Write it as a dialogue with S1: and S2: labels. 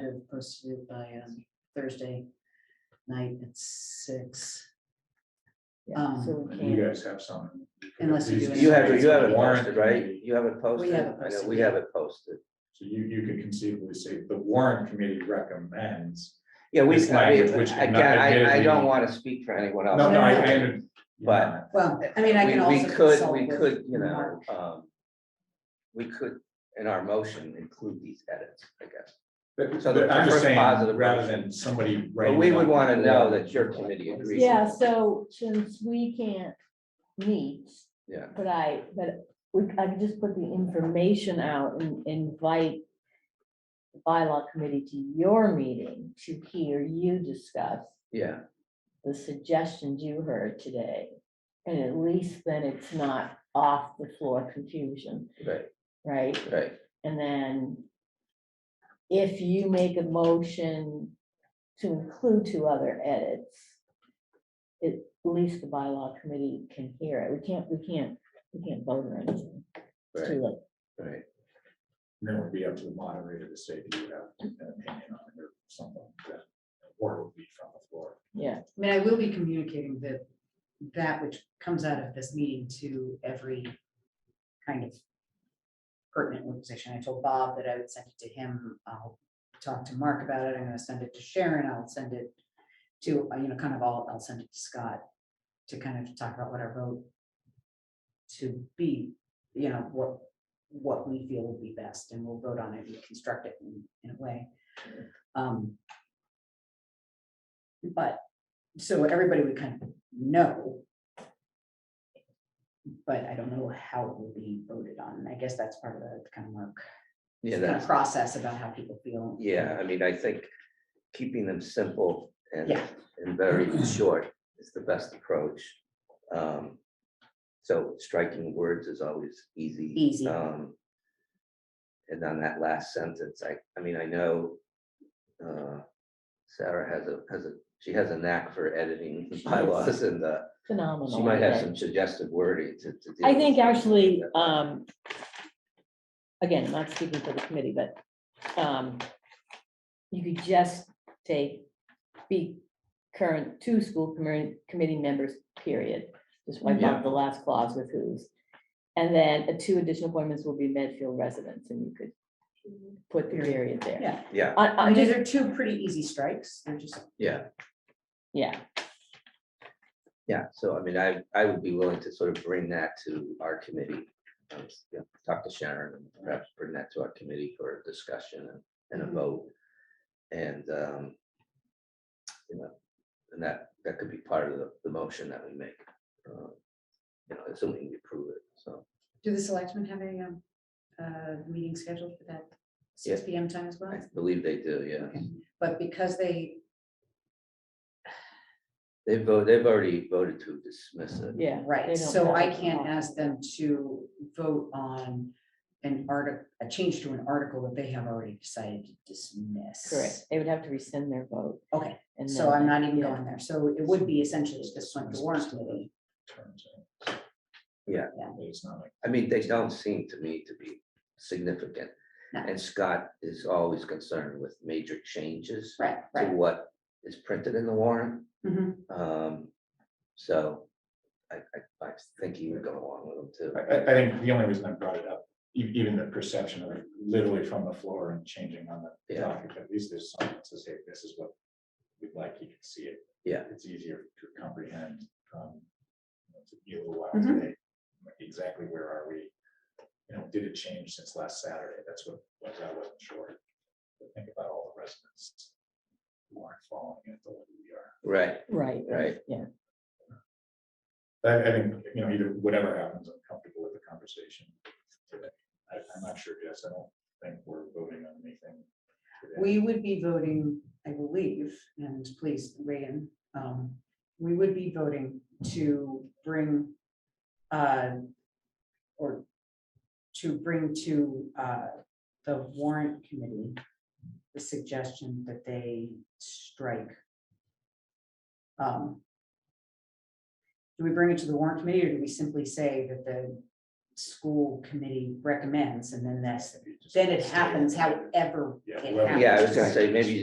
S1: agenda is posted by um, Thursday night at six.
S2: Yeah, so we
S3: You
S2: can't.
S3: guys have some.
S1: Unless you do
S4: You have, it- you have it
S1: Warrant
S4: warranted, right? You have it posted?
S1: Um, have it
S4: I know,
S1: posted,
S4: We
S1: yeah.
S4: have it posted.
S3: So you, you could conceivably say the warrant committee recommends.
S4: Yeah, we,
S3: This
S4: I
S3: language,
S4: mean,
S3: which would
S4: again,
S3: not
S4: I, I
S3: admittedly-
S4: don't want to speak for anyone
S3: No,
S4: else.
S3: no, I, I. under-
S4: But-
S1: Well, I mean, I
S4: We-
S1: can also.
S4: We could,
S1: consult
S4: we
S1: with
S4: could, you
S1: Mark.
S4: know, um, we could, in our motion, include these edits, I guess.
S3: But,
S4: So the
S3: but I'm just
S4: first
S3: saying,
S4: positive
S3: rather
S4: motion.
S3: than somebody.
S4: But
S3: writing
S4: we would
S3: down-
S4: want to know that your committee agrees.
S2: Yeah, so since we can't meet,
S4: Yeah,
S2: but I, but we, I could just put the information out and invite the bylaw committee to your meeting to hear you discuss
S4: yeah.
S2: the suggestions you heard today. And at least then it's not off the floor confusion,
S4: Right,
S2: right?
S4: right.
S2: And then if you make a motion to include two other edits, at least the bylaw committee can hear it. We can't, we can't, we can't vote or anything. It's
S4: Right,
S2: too late.
S4: right.
S3: Then it would be up to the moderator to say, do you have an opinion on it or something? that- Or it would be from the floor.
S2: Yeah,
S1: I mean, I will be communicating that, that which comes out of this meeting to every kind of pertinent organization. I told Bob that I would send it to him. I'll talk to Mark about it. I'm gonna send it to Sharon. I'll send it to, uh, you know, kind of all, I'll send it to Scott to kind of talk about what I wrote to be, you know, what, what we feel would be best, and we'll vote on it and construct it in, in a way. Um, But so everybody would kind of know. But I don't know how it will be voted on. I guess that's part of the kind of work,
S4: Yeah,
S1: kind
S4: that's,
S1: of process about how people feel.
S4: yeah, I mean, I think keeping them simple and,
S1: Yeah.
S4: and very short is the best approach. Um, So striking words is always easy.
S1: Easy.
S4: Um, And on that last sentence, I, I mean, I know uh, Sarah has a, has a, she has a knack for editing
S2: She
S4: bylaws and uh,
S2: phenomenal.
S4: she might have
S2: idea.
S4: some suggestive wording to, to. deal
S2: I
S4: with
S2: think
S4: things
S2: actually,
S4: like that.
S2: um, again, not speaking for the committee, but, um, you could just take, be current two school committee, committee members, period. Just wipe
S4: Yeah.
S2: out the last clause with who's. And then uh, two additional appointments will be Medfield residents, and you could put the period there.
S1: Yeah,
S4: Yeah,
S1: I
S2: I, I
S1: mean, these
S2: just,
S1: are two pretty easy strikes. They're just,
S4: yeah,
S2: yeah,
S4: yeah. So I mean, I, I would be willing to sort of bring that to our committee. um, you know, Talk to Sharon and perhaps bring that to our committee for discussion and- and a
S1: Mhm.
S4: vote. And, um, you know, and that, that could be part of the, the motion that we make. uh, You know, assuming we approve it, so.
S1: do the selectmen have a, um, uh, meeting scheduled for that six
S4: Yeah.
S1: P M time as well?
S4: I believe they do, yeah.
S1: But because they,
S4: They've voted, they've already voted to dismiss it.
S2: yeah. they
S1: right,
S2: don't
S1: so
S2: have
S1: I
S2: it
S1: can't
S2: on.
S1: ask them to vote on an article, a change to an article that they have already decided to dismiss.
S2: Correct, they would have to rescind their vote.
S1: Okay,
S2: and
S1: so
S2: then-
S1: I'm not even
S2: yeah.
S1: going there. So it would be essentially just this one, the warrant committee.
S3: Terms of-
S4: Yeah.
S1: Yeah.
S3: It's not like,
S4: I mean, they don't seem to me to be significant.
S1: No.
S4: And Scott is always concerned with major changes
S1: Right,
S4: to
S1: right.
S4: what is printed in the warrant.
S1: Mhm.
S4: Um, so I, I, I think he would go along with them
S3: I,
S4: too.
S3: I, I think the only reason I brought it up, e- even the perception of it literally from the floor and changing on the
S4: Yeah.
S3: document, at least there's something to say, this is what we'd like, you can see it.
S4: Yeah.
S3: It's easier to comprehend. um, you know, It took me a little while
S4: Mm-hmm.
S1: Mhm.
S3: today, like, exactly where are we? You know, did it change since last Saturday? That's what, what I wasn't sure. But Think about all the residents who aren't following it the way we are.
S4: Right,
S2: Right,
S4: right.
S3: I, I think, you know, either whatever happens, I'm comfortable with the conversation today. I, I'm not sure, yes, I don't think we're voting on anything. today.
S1: We would be voting, I believe, and please weigh in. um, We would be voting to bring uh, or to bring to uh, the warrant committee the suggestion that they strike. um, Do we bring it to the warrant committee or do we simply say that the school committee recommends, and then that's,
S3: If you just
S1: then it
S3: stay-
S1: happens however
S3: Yeah,
S1: it
S3: whoever-
S1: happens.
S4: Yeah, I was gonna say, maybe